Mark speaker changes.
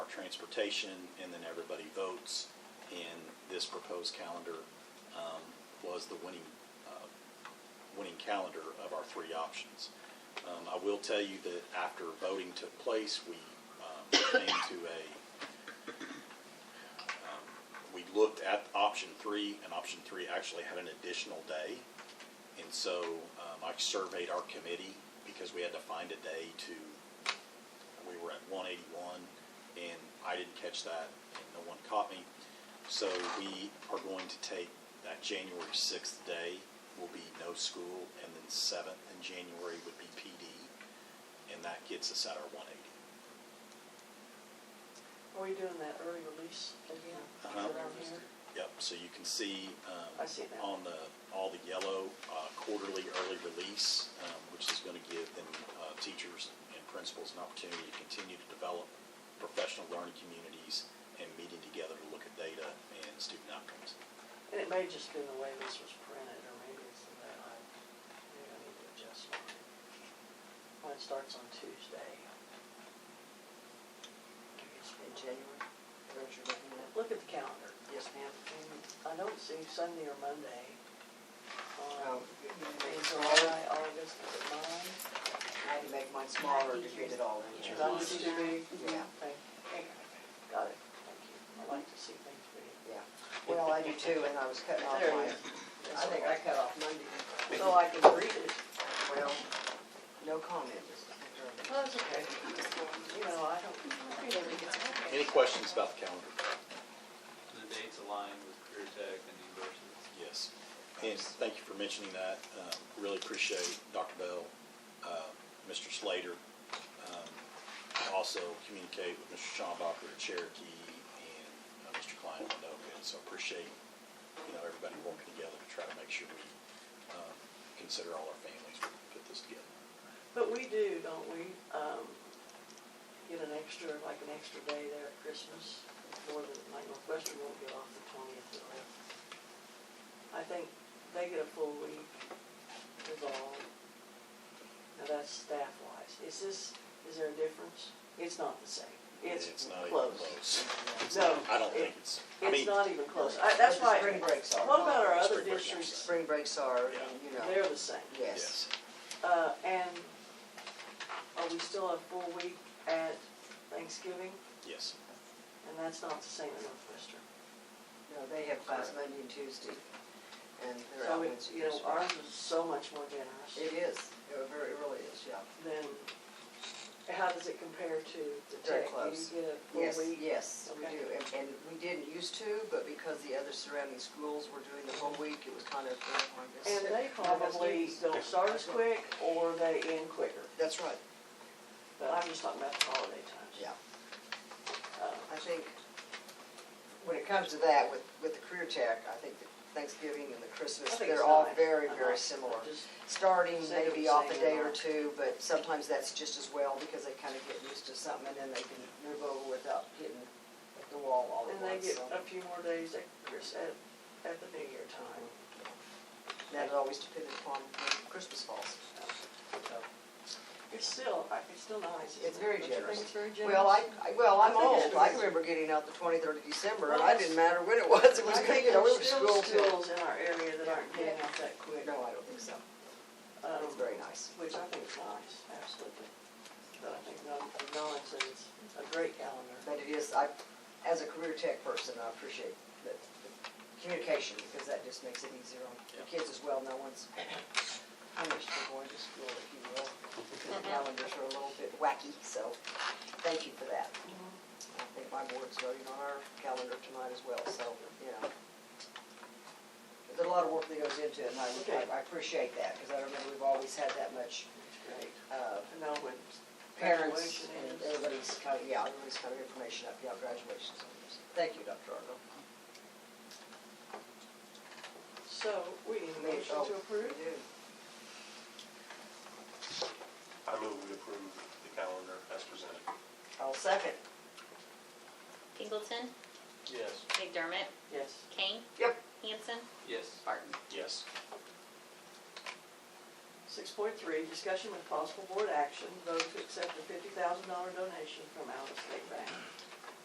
Speaker 1: transportation, and then everybody votes. And this proposed calendar um, was the winning, uh, winning calendar of our three options. Um, I will tell you that after voting took place, we um, came to a, um, we looked at option three, and option three actually had an additional day. And so um, I surveyed our committee because we had to find a day to, we were at 181, and I didn't catch that, and no one caught me. So we are going to take that January 6th day will be no school, and then 7th in January would be PD, and that gets us at our 180.
Speaker 2: Are we doing that early release again? Is
Speaker 1: Uh-huh.
Speaker 2: it on here?
Speaker 1: Yep, so you can see um,
Speaker 2: I see that.
Speaker 1: on the, all the yellow uh, quarterly early release, um, which is going to give them, uh, teachers and principals an opportunity to continue to develop professional learning communities and meeting together to look at data and student outcomes.
Speaker 2: And it may just be the way this was printed, or maybe it's the way I, maybe I need to adjust mine. Mine starts on Tuesday.
Speaker 3: In January, where you're looking at?
Speaker 2: Look at the calendar.
Speaker 3: Yes, ma'am.
Speaker 2: And I don't see Sunday or Monday. Um,
Speaker 3: Oh, you
Speaker 2: in
Speaker 3: made it
Speaker 2: July,
Speaker 3: smaller.
Speaker 2: August, is it mine?
Speaker 3: I had to make mine smaller to fit it all in here.
Speaker 2: Did I see the big?
Speaker 3: Yeah.
Speaker 2: Thank- thank- Got it, thank you. I like to see things big.
Speaker 3: Yeah, well, I do too, and I was cutting off
Speaker 2: There it
Speaker 3: mine.
Speaker 2: is.
Speaker 3: I think I cut off Monday.
Speaker 2: So I can read it.
Speaker 3: Well, no comment.
Speaker 2: Well, that's okay. You know, I don't,
Speaker 1: Any questions about the calendar?
Speaker 4: The dates align with Career Tech and the universities.
Speaker 1: Yes. And thank you for mentioning that. Um, Really appreciate Dr. Bell, uh, Mr. Slater. Um, I Also communicate with Mr. Schombacher at Cherokee and uh, Mr. Klein at Winoka. And So appreciate, you know, everybody working together to try to make sure we um, consider all our families when we put this together.
Speaker 2: but we do, don't we, um, get an extra, like an extra day there at Christmas, more than, like Northwestern won't get off the twentieth or whatever. I think they get a full week, is all. Now, that's staff wise. Is this, is there a difference? It's not the same. It's
Speaker 1: not even
Speaker 2: close.
Speaker 1: close.
Speaker 2: No.
Speaker 1: I don't think
Speaker 2: it-
Speaker 1: it's, I
Speaker 2: It's
Speaker 1: mean,
Speaker 2: not even close.
Speaker 3: uh,
Speaker 2: I, that's
Speaker 3: But the
Speaker 2: why.
Speaker 3: spring breaks are.
Speaker 2: What about our other
Speaker 1: Spring break, yes.
Speaker 2: districts?
Speaker 3: Spring breaks are, you
Speaker 2: They're
Speaker 3: know,
Speaker 2: the same.
Speaker 3: yes.
Speaker 1: yes.
Speaker 2: Uh, and are we still a full week at Thanksgiving?
Speaker 1: Yes.
Speaker 2: And that's not the same in Northwestern.
Speaker 3: No, they have class Monday and Tuesday, and they're out
Speaker 2: So,
Speaker 3: Wednesday.
Speaker 2: it- you know,
Speaker 3: Thursday.
Speaker 2: ours is so much more
Speaker 3: It
Speaker 2: generous
Speaker 3: is, it very, it really is, yeah.
Speaker 2: than, how does it compare to the
Speaker 3: Very
Speaker 2: tech?
Speaker 3: close.
Speaker 2: Do you get a
Speaker 3: Yes,
Speaker 2: full week?
Speaker 3: yes, we
Speaker 2: Okay.
Speaker 3: do, and, and we didn't used to, but because the other surrounding schools were doing the whole week, it was kind of.
Speaker 2: And they probably don't start as quick or they end quicker.
Speaker 3: That's right,
Speaker 2: But I'm just talking about the holiday times.
Speaker 3: yeah.
Speaker 2: Uh,
Speaker 3: I think when it comes to that, with, with the career tech, I think that Thanksgiving and the
Speaker 2: I
Speaker 3: Christmas,
Speaker 2: think it's
Speaker 3: they're all
Speaker 2: nice.
Speaker 3: very,
Speaker 2: I
Speaker 3: very
Speaker 2: like-
Speaker 3: similar.
Speaker 2: I just-
Speaker 3: Starting
Speaker 2: Say
Speaker 3: maybe
Speaker 2: the
Speaker 3: off a
Speaker 2: same
Speaker 3: day or
Speaker 2: amount.
Speaker 3: two, but sometimes that's just as well because they kind of get used to something and then they can move over without hitting the wall all at
Speaker 2: And they
Speaker 3: once.
Speaker 2: get
Speaker 3: so.
Speaker 2: a few more days at Chris, at, at the New Year time.
Speaker 3: That it always depended upon when Christmas falls.
Speaker 2: It's still, I- it's still nice. isn't
Speaker 3: It's
Speaker 2: it?
Speaker 3: very
Speaker 2: Don't you think
Speaker 3: generous.
Speaker 2: it's very generous.
Speaker 3: Well, I, I- well, I'm
Speaker 2: I think
Speaker 3: old,
Speaker 2: it
Speaker 3: I
Speaker 2: is.
Speaker 3: remember getting out the twenty-third of December, and
Speaker 2: Well,
Speaker 3: I didn't matter when it was, it was,
Speaker 2: I think
Speaker 3: you know, we
Speaker 2: there's
Speaker 3: were
Speaker 2: still
Speaker 3: school till.
Speaker 2: schools in our area that aren't getting out that quick.
Speaker 3: No, I don't think so,
Speaker 2: um,
Speaker 3: it's very nice.
Speaker 2: Which I think is nice, absolutely. But I think no- acknowledge that it's a great calendar.
Speaker 3: But it is, I, as a career tech person, I appreciate the the communication, because that just makes it easier on the
Speaker 1: Yeah.
Speaker 3: kids as well, no one's, how much they're going to school, if you will, because the calendars are a little bit wacky, so, thank you for that. I think my board's voting on our calendar tonight as well, so, you know. There's a lot of work that goes into it, and
Speaker 2: Okay.
Speaker 3: I, I appreciate that, because I remember we've always had that much,
Speaker 2: It's great.
Speaker 3: uh,
Speaker 2: And now when
Speaker 3: parents
Speaker 2: graduation
Speaker 3: and
Speaker 2: is,
Speaker 3: everybody's kind of, yeah, everybody's kind of information up, yeah, graduations. and this. Thank you, Dr. Argo.
Speaker 2: So, we need a motion
Speaker 3: Oh,
Speaker 2: to approve?
Speaker 3: we do.
Speaker 5: I move we approve the calendar as presented.
Speaker 3: I'll second.
Speaker 6: Pinkleton,
Speaker 5: Yes.
Speaker 6: McDermott,
Speaker 2: Yes.
Speaker 6: Kane,
Speaker 3: Yep.
Speaker 6: Hanson,
Speaker 4: Yes.
Speaker 6: Barton.
Speaker 5: Yes.
Speaker 2: Six point three, discussion with possible board action, vote to accept a fifty thousand dollar donation from Alva State Bank.